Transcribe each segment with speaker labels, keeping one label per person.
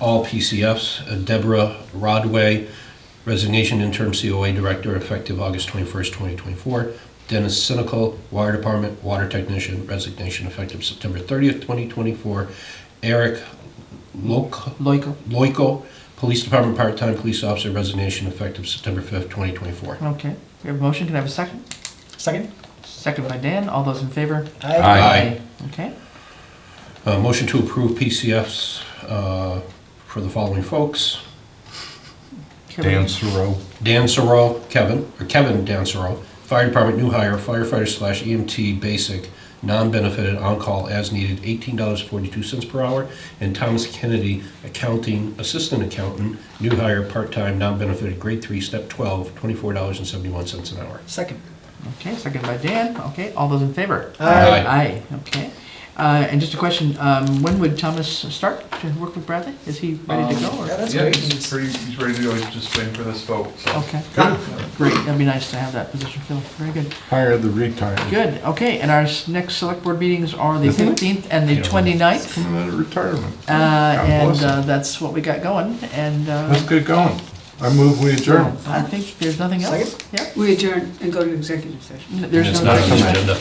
Speaker 1: all PCFs. Uh, Deborah Rodway, resignation interim COA director effective August 21st, 2024. Dennis Sinical, Wire Department Water Technician, resignation effective September 30th, 2024. Eric Loc-
Speaker 2: Loico.
Speaker 1: Loico, Police Department Part-Time Police Officer, resignation effective September 5th, 2024.
Speaker 2: Okay, we have a motion, can I have a second?
Speaker 3: Second?
Speaker 2: Second by Dan, all those in favor?
Speaker 3: Aye.
Speaker 1: Aye.
Speaker 2: Okay,
Speaker 1: Uh, Motion to approve PCFs uh, for the following folks.
Speaker 4: Dan Suro.
Speaker 1: Dan Sorrell, Kevin, or Kevin Dan Sorrell, Fire Department new hire, firefighter slash EMT basic, non-benefited, on-call as needed, $18.42 per hour. And Thomas Kennedy, accounting, assistant accountant, new hire, part-time, non-benefited, grade three, step 12, $24.71 an hour.
Speaker 3: Second.
Speaker 2: okay, second by Dan, okay, all those in favor?
Speaker 3: Aye.
Speaker 2: Aye, okay. Uh, and just a question, um, when would Thomas start to work with Bradley? Is he ready to go
Speaker 3: Yeah,
Speaker 2: or?
Speaker 3: that's
Speaker 5: Yeah,
Speaker 3: great.
Speaker 5: he's pretty, he's ready to go, he's just waiting for this vote, so.
Speaker 2: Okay, great, that'd be nice to have that position filled, very good.
Speaker 4: Hire the retired.
Speaker 2: Good, okay, and our s- next select board meetings are the fifteenth and the 29th.
Speaker 4: Coming out of retirement.
Speaker 2: Uh, and, uh, that's what we got going and,
Speaker 4: Let's
Speaker 2: uh,
Speaker 4: get going. I move we adjourn.
Speaker 2: I think there's nothing else.
Speaker 3: Second?
Speaker 2: Yep.
Speaker 6: We adjourn and go to executive session.
Speaker 2: N- There's
Speaker 1: It's
Speaker 2: no.
Speaker 1: not on the agenda.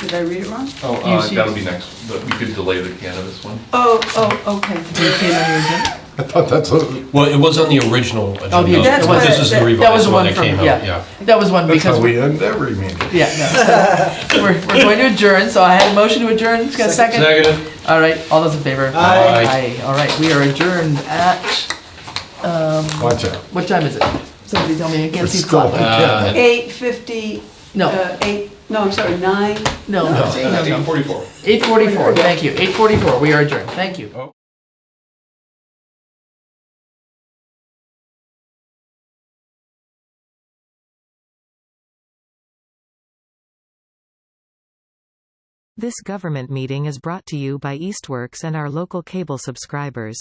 Speaker 6: Did I read it wrong?
Speaker 5: Oh, uh,
Speaker 2: see-
Speaker 5: that'll be next, but we could delay the cannabis one.
Speaker 6: Oh, oh, okay.
Speaker 4: I thought that's what,
Speaker 1: Well, it was on the original agenda.
Speaker 2: Oh, the
Speaker 6: That's
Speaker 1: but This
Speaker 6: what-
Speaker 1: is the
Speaker 6: that-
Speaker 2: That was
Speaker 1: revised
Speaker 2: the
Speaker 1: one
Speaker 2: one
Speaker 1: that
Speaker 2: from,
Speaker 1: came out,
Speaker 2: yeah,
Speaker 1: yeah.
Speaker 2: that was one
Speaker 4: that's
Speaker 2: because,
Speaker 4: how
Speaker 2: we-
Speaker 4: we end every meeting.
Speaker 2: yeah, no. We're, we're going to adjourn, so I had a motion to adjourn, just got a second?
Speaker 1: Negative.
Speaker 2: All right, all those in favor?
Speaker 1: Aye.
Speaker 2: Aye, all right, we are adjourned at,
Speaker 4: Watch out.
Speaker 2: what time is it? Somebody tell me, I can't
Speaker 4: It's
Speaker 2: see the
Speaker 4: still
Speaker 2: clock.
Speaker 1: Uh,
Speaker 6: Eight fifty,
Speaker 2: No,
Speaker 6: uh, eight, no, I'm sorry, nine.
Speaker 2: no, no, no.
Speaker 5: 8:44.
Speaker 2: Eight forty-four, thank you, eight forty-four, we are adjourned, thank you.
Speaker 7: This government meeting is brought to you by Eastworks and our local cable subscribers.